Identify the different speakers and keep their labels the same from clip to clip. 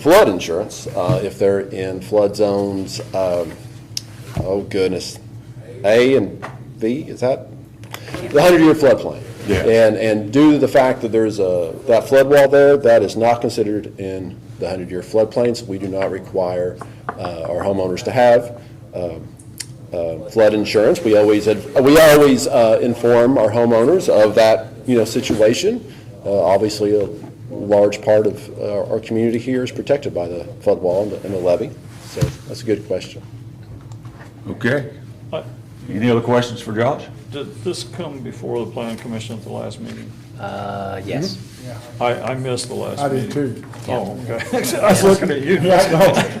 Speaker 1: flood insurance, uh, if they're in flood zones, um, oh goodness, A and B, is that? The hundred-year floodplain.
Speaker 2: Yeah.
Speaker 1: And, and due to the fact that there's a, that flood wall there, that is not considered in the hundred-year floodplains. We do not require uh, our homeowners to have um, uh, flood insurance. We always, ad- we always uh, inform our homeowners of that, you know, situation. Uh, Obviously, a large part of uh, our community here is protected by the flood wall and the- and the levee. So that's a good question.
Speaker 2: Okay.
Speaker 3: Uh,
Speaker 2: Any other questions for Josh?
Speaker 3: Did this come before the planning commission at the last meeting?
Speaker 4: Uh, yes.
Speaker 1: Mm-hmm.
Speaker 3: I, I missed the last
Speaker 5: I
Speaker 3: meeting.
Speaker 5: did too.
Speaker 3: Oh, okay. I was looking at you.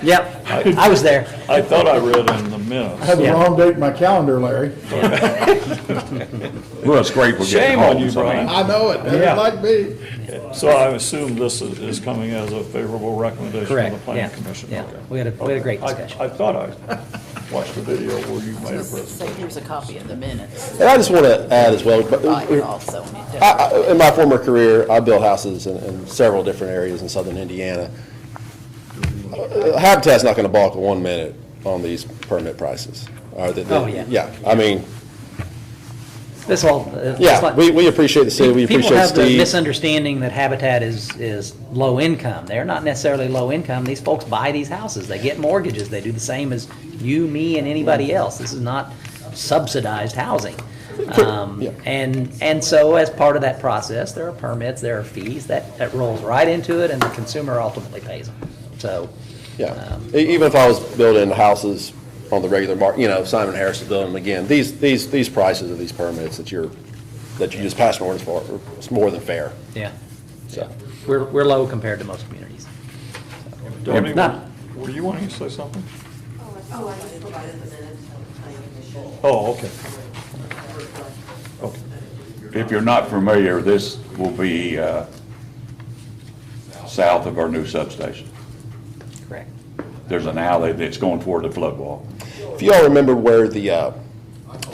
Speaker 4: Yep, I was there.
Speaker 3: I thought I read in the
Speaker 5: I
Speaker 3: minutes.
Speaker 5: had the
Speaker 4: Yeah.
Speaker 5: wrong date in my calendar, Larry.
Speaker 2: We're a scrape we're getting
Speaker 3: Shame on
Speaker 2: home,
Speaker 3: you,
Speaker 2: so I mean-
Speaker 3: Brian.
Speaker 5: I know it,
Speaker 3: Yeah.
Speaker 5: doesn't like me.
Speaker 3: So I assume this is, is coming as a favorable recommendation from
Speaker 4: Correct,
Speaker 3: the
Speaker 4: yeah,
Speaker 3: planning commission.
Speaker 4: yeah.
Speaker 3: Okay.
Speaker 4: We had a, we had a great
Speaker 3: I,
Speaker 4: discussion.
Speaker 3: I thought I watched the video where you made a presentation.
Speaker 6: Say, here's a copy of the minutes,
Speaker 1: And I just want to add as well, but
Speaker 6: buy it also.
Speaker 1: I- I- In my former career, I built houses in- in several different areas in southern Indiana. Uh, Habitat's not going to balk one minute on these permit prices. or the- the-
Speaker 4: Oh, yeah.
Speaker 1: Yeah, I mean,
Speaker 4: This all. uh, it's
Speaker 1: yeah,
Speaker 4: like-
Speaker 1: we, we appreciate the city, we
Speaker 4: People
Speaker 1: appreciate
Speaker 4: have the
Speaker 1: Steve.
Speaker 4: misunderstanding that Habitat is, is low income. They're not necessarily low income. These folks buy these houses. They get mortgages. They do the same as you, me, and anybody else. This is not subsidized housing. Um,
Speaker 1: Yeah.
Speaker 4: And, and so as part of that process, there are permits, there are fees, that, that rolls right into it, and the consumer ultimately pays them. So,
Speaker 1: Yeah,
Speaker 4: um,
Speaker 1: E- even if I was building houses on the regular market, you know, Simon Harris is building them again, these, these, these prices of these permits that you're, that you just passed an ordinance for, it's more than fair,
Speaker 4: yeah,
Speaker 1: so.
Speaker 4: we're, we're low compared to most communities.
Speaker 3: Tony,
Speaker 4: No.
Speaker 3: were you wanting to say something?
Speaker 7: Oh, I just provided the minutes for the planning commission.
Speaker 3: Oh, okay. Okay.
Speaker 2: If you're not familiar, this will be uh, south of our new substation.
Speaker 4: Correct.
Speaker 2: There's an alley that's going toward the flood wall.
Speaker 1: If you all remember where the, uh,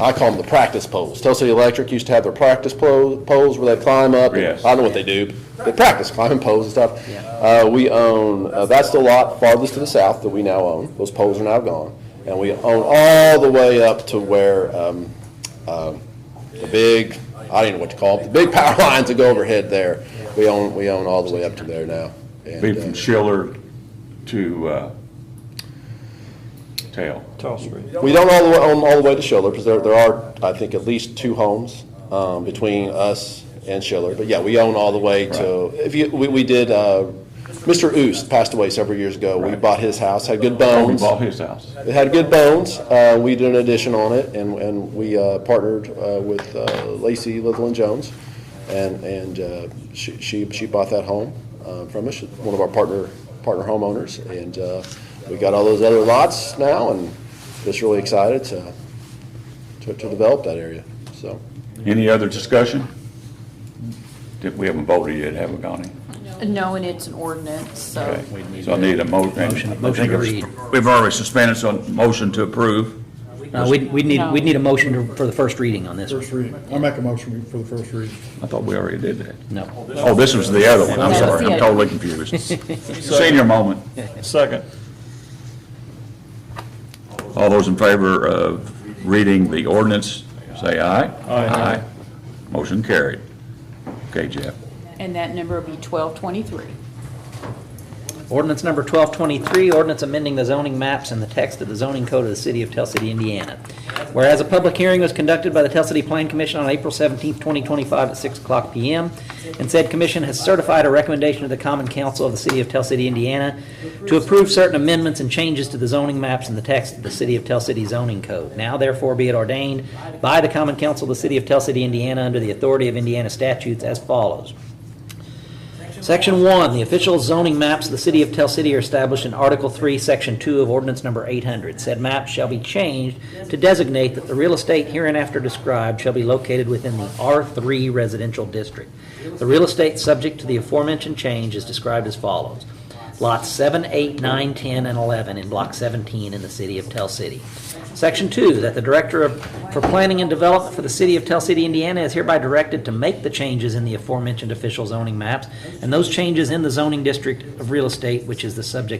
Speaker 1: I call them the practice poles. Tell City Electric used to have their practice po- poles where they climb up.
Speaker 2: Yes.
Speaker 1: I know what they do. They practice climbing poles and stuff. Uh, We own, uh, that's the lot farthest to the south that we now own. Those poles are now gone. And we own all the way up to where um, um, the big, I don't even know what to call them, the big power lines that go overhead there. We own, we own all the way up to there now. And,
Speaker 2: Be
Speaker 1: uh,
Speaker 2: from Schiller to uh, Tail.
Speaker 3: Tell Street.
Speaker 1: We don't all, the way- own all the way to Schiller, because there, there are, I think, at least two homes um, between us and Schiller. But yeah, we own all the way to, if you, we, we did, uh, Mr. Oost passed away several years ago. We
Speaker 2: Right.
Speaker 1: bought his house, had good
Speaker 2: Oh, We
Speaker 1: bones.
Speaker 2: bought his house.
Speaker 1: It had good bones. Uh, We did an addition on it, and, and we uh, partnered uh, with uh, Lacey Little and Jones, and, and uh, she, she she bought that home uh, from us, She's one of our partner, partner homeowners, and uh, we got all those other lots now, and just really excited to, to to develop that area, so.
Speaker 2: Any other discussion? Did- We haven't voted yet, have we, Connie?
Speaker 6: No, and it's an ordinance, so.
Speaker 2: Okay. So I need a mo, I
Speaker 4: Motion-
Speaker 2: think
Speaker 4: motion to
Speaker 2: it's-
Speaker 4: read.
Speaker 2: We've already suspended, so motion to approve.
Speaker 4: No, Uh, we'd, we'd need,
Speaker 6: No.
Speaker 4: we'd need a motion to- for the first reading on this one.
Speaker 5: First reading. I make a motion for the first reading.
Speaker 2: I thought we already did that.
Speaker 4: No.
Speaker 2: Oh, this was the other one, I'm
Speaker 6: That was
Speaker 2: sorry,
Speaker 6: the
Speaker 2: I'm
Speaker 6: other
Speaker 2: totally confused. Senior moment.
Speaker 3: Second.
Speaker 2: All those in favor of reading the ordinance, say aye.
Speaker 3: Aye.
Speaker 2: Motion carried. Okay, Jeff.
Speaker 6: And that number will be 1223.
Speaker 4: Ordinance number 1223, ordinance amending the zoning maps and the text of the zoning code of the city of Tell City, Indiana. Whereas a public hearing was conducted by the Tell City Plan Commission on April 17, 2025 at 6 o'clock PM, and said commission has certified a recommendation to the Common Council of the city of Tell City, Indiana to approve certain amendments and changes to the zoning maps and the text of the city of Tell City zoning code. Now therefore be it ordained by the Common Council of the city of Tell City, Indiana, under the authority of Indiana statutes as follows. Section 1, the official zoning maps of the city of Tell City are established in Article 3, Section 2 of Ordinance Number 800. Said maps shall be changed to designate that the real estate hereinafter described shall be located within the R3 residential district. The real estate subject to the aforementioned change is described as follows. lots 7, 8, 9, 10, and 11 in Block 17 in the city of Tell City. Section 2, that the Director of, for Planning and Development for the city of Tell City, Indiana is hereby directed to make the changes in the aforementioned official zoning maps and those changes in the zoning district of real estate, which is the subject